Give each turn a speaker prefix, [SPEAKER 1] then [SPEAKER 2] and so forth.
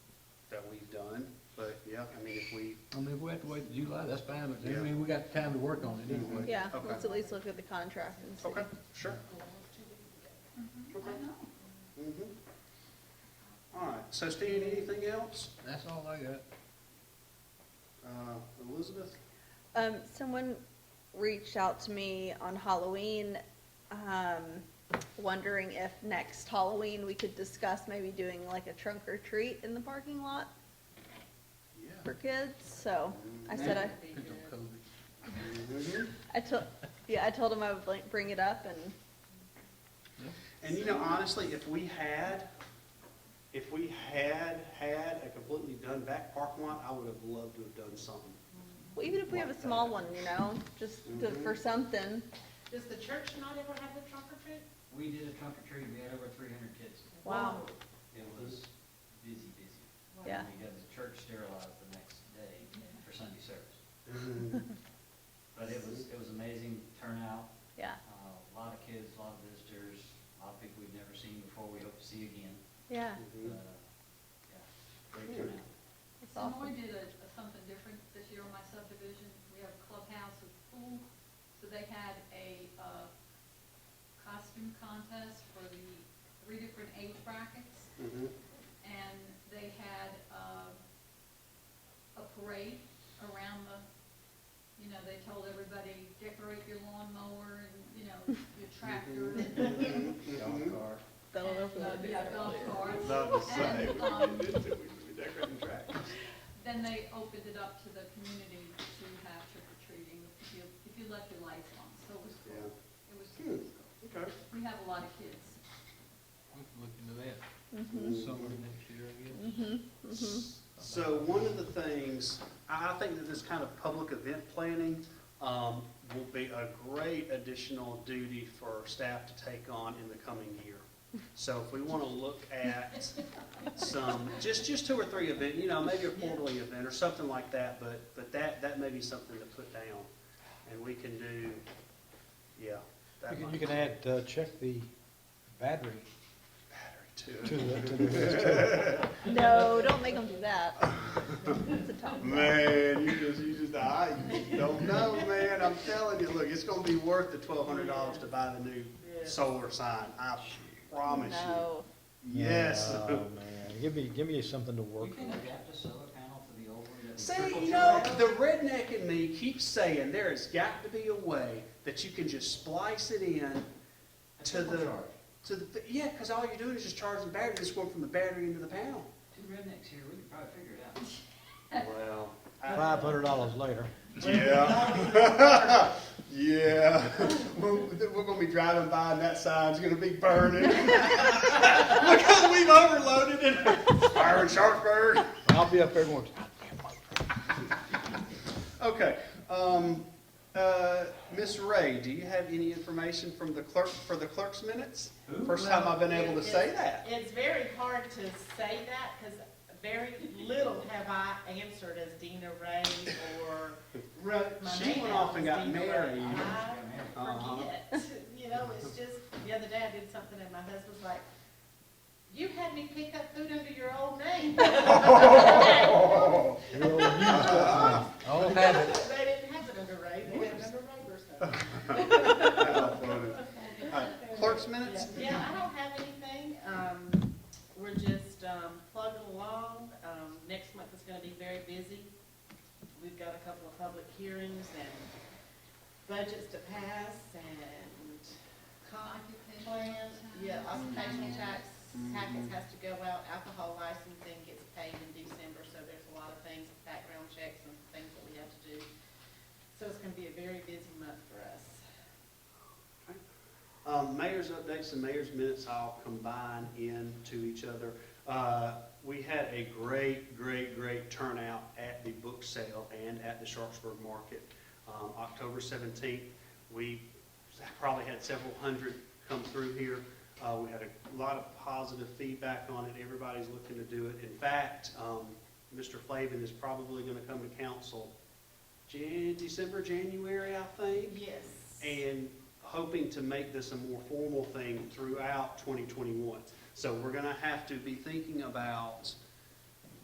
[SPEAKER 1] yeah, I mean, if we,
[SPEAKER 2] I mean, if we have to wait till July, that's fine, but I
[SPEAKER 1] Yeah.
[SPEAKER 2] mean, we got time to work on it anyway.
[SPEAKER 3] Yeah,
[SPEAKER 1] Okay.
[SPEAKER 3] let's at least look at the contract and see.
[SPEAKER 1] okay, sure.
[SPEAKER 4] I know.
[SPEAKER 1] Mhm. All right, so Steve, anything else?
[SPEAKER 2] That's all I got.
[SPEAKER 1] Uh, Elizabeth?
[SPEAKER 3] Um, someone reached out to me on Halloween, um, wondering if next Halloween we could discuss maybe doing like a trunk or treat in the parking lot
[SPEAKER 1] Yeah.
[SPEAKER 3] for kids, so I said I,
[SPEAKER 2] Depends on COVID.
[SPEAKER 1] Mhm.
[SPEAKER 3] I told, yeah, I told him I would like bring it up and,
[SPEAKER 1] And you know, honestly, if we had, if we had had a completely done back parking lot, I would have loved to have done something.
[SPEAKER 3] well, even if we have a small one, you know, just to-
[SPEAKER 1] Mm-hmm.
[SPEAKER 3] for something,
[SPEAKER 4] Does the church not ever have the trunk or treat?
[SPEAKER 5] We did a trunk or treat, we had over three hundred kids.
[SPEAKER 3] Wow.
[SPEAKER 5] It was busy, busy.
[SPEAKER 3] yeah.
[SPEAKER 5] We had the church sterilized the next day for Sunday service.
[SPEAKER 1] Mhm.
[SPEAKER 5] But it was, it was amazing turnout,
[SPEAKER 3] Yeah,
[SPEAKER 5] uh, a lot of kids, a lot of visitors, a lot of people we've never seen before, we hope to see again.
[SPEAKER 3] yeah,
[SPEAKER 5] But, uh,
[SPEAKER 1] Mhm.
[SPEAKER 5] yeah, Great turnout.
[SPEAKER 1] Mm-hmm.
[SPEAKER 3] it's
[SPEAKER 4] Sonoy
[SPEAKER 3] awesome.
[SPEAKER 4] did a, a something different this year on my subdivision. We have a clubhouse with pool, so they had a, uh, costume contest for the three different age brackets.
[SPEAKER 1] Mhm.
[SPEAKER 4] and they had, uh, a parade around the, you know, they told everybody, decorate your lawnmower and, you know, your tractor.
[SPEAKER 1] Mhm.
[SPEAKER 5] Dog
[SPEAKER 1] Mhm.
[SPEAKER 5] car.
[SPEAKER 3] That'll
[SPEAKER 4] and, uh,
[SPEAKER 3] definitely be
[SPEAKER 4] Yeah,
[SPEAKER 3] better.
[SPEAKER 4] golf carts.
[SPEAKER 1] Love to say.
[SPEAKER 4] And, um,
[SPEAKER 1] Decorating track.
[SPEAKER 4] then they opened it up to the community to have trick or treating, if you, if you left your lights on, so it was
[SPEAKER 1] Yeah.
[SPEAKER 4] cool. It was, it
[SPEAKER 1] Hmm.
[SPEAKER 4] was cool.
[SPEAKER 1] Okay.
[SPEAKER 4] We have a lot of kids.
[SPEAKER 2] We can look into that
[SPEAKER 3] Mhm,
[SPEAKER 2] summer next year, I guess.
[SPEAKER 3] mhm, mhm.
[SPEAKER 1] So one of the things, I I think that this kind of public event planning um, will be a great additional duty for staff to take on in the coming year. So if we want to look at some, just, just two or three event, you know, maybe a quarterly event or something like that, but, but that, that may be something to put down. And we can do, yeah. that
[SPEAKER 6] You can,
[SPEAKER 1] might-
[SPEAKER 6] you can add, uh, check the battery
[SPEAKER 1] Battery
[SPEAKER 6] to
[SPEAKER 1] too.
[SPEAKER 6] the, to the,
[SPEAKER 3] No, don't make them do that. It's a tough one.
[SPEAKER 1] Man, you just, you just, I don't know, man, I'm telling you, look, it's gonna be worth the twelve hundred dollars to buy the new solar sign, I promise you.
[SPEAKER 3] No,
[SPEAKER 1] Yes.
[SPEAKER 6] Oh, man, give me, give me something to
[SPEAKER 5] We
[SPEAKER 6] work
[SPEAKER 5] can
[SPEAKER 6] on.
[SPEAKER 5] adapt a solar panel to the old one that we
[SPEAKER 1] See,
[SPEAKER 5] trickle
[SPEAKER 1] you know,
[SPEAKER 5] to.
[SPEAKER 1] the redneck in me keeps saying there has got to be a way that you can just splice it in
[SPEAKER 5] A
[SPEAKER 1] to
[SPEAKER 5] trickle
[SPEAKER 1] the-
[SPEAKER 5] charge.
[SPEAKER 1] to the, yeah, cause all you're doing is just charging the battery, just going from the battery into the panel.
[SPEAKER 5] Two rednecks here, we could probably figure it out.
[SPEAKER 1] Well.
[SPEAKER 6] Five hundred dollars later.
[SPEAKER 1] Yeah. yeah. We're, we're going to be driving by and that sign's going to be burning. because we've overloaded it. Fire in Sharpsburg.
[SPEAKER 6] I'll be up there going,
[SPEAKER 1] Okay. Um, uh, Miss Ray, do you have any information from the clerk for the clerk's minutes?
[SPEAKER 5] Who?
[SPEAKER 1] First time I've been able to say
[SPEAKER 7] Yes.
[SPEAKER 1] that.
[SPEAKER 7] It's very hard to say that because very little have I answered as Dina Ray or wrote my
[SPEAKER 1] She
[SPEAKER 7] name
[SPEAKER 1] went
[SPEAKER 7] out
[SPEAKER 1] off and
[SPEAKER 7] as
[SPEAKER 1] got
[SPEAKER 7] Dina Ray.
[SPEAKER 1] married.
[SPEAKER 7] I
[SPEAKER 5] Got married.
[SPEAKER 1] Uh-huh.
[SPEAKER 7] forget, you know, it's just, the other day I did something and my husband's like, you had me pick up food under your old name.
[SPEAKER 6] you're old news.
[SPEAKER 2] Oh,
[SPEAKER 6] I'll have it.
[SPEAKER 7] They didn't have it under Ray, they had it under Ray or something.
[SPEAKER 1] How funny. All right, Clerk's minutes?
[SPEAKER 7] Yeah, I don't have anything. Um, we're just, um, plugging along. Um, next month is gonna be very busy. We've got a couple of public hearings and budgets to pass and comp plans. Yeah, occupation tax, packets has to go out. Alcohol licensing gets paid in December, so there's a lot of things, background checks and things that we have to do. So it's gonna be a very busy month for us.
[SPEAKER 1] Um, mayor's updates and mayor's minutes all combine into each other. Uh, we had a great, great, great turnout at the book sale and at the Sharpsburg Market. Um, October seventeenth, we probably had several hundred come through here. Uh, we had a lot of positive feedback on it. Everybody's looking to do it. In fact, um, Mr. Flavin is probably gonna come to council Jan, December, January, I think
[SPEAKER 7] Yes.
[SPEAKER 1] and hoping to make this a more formal thing throughout 2021. So we're going to have to be thinking about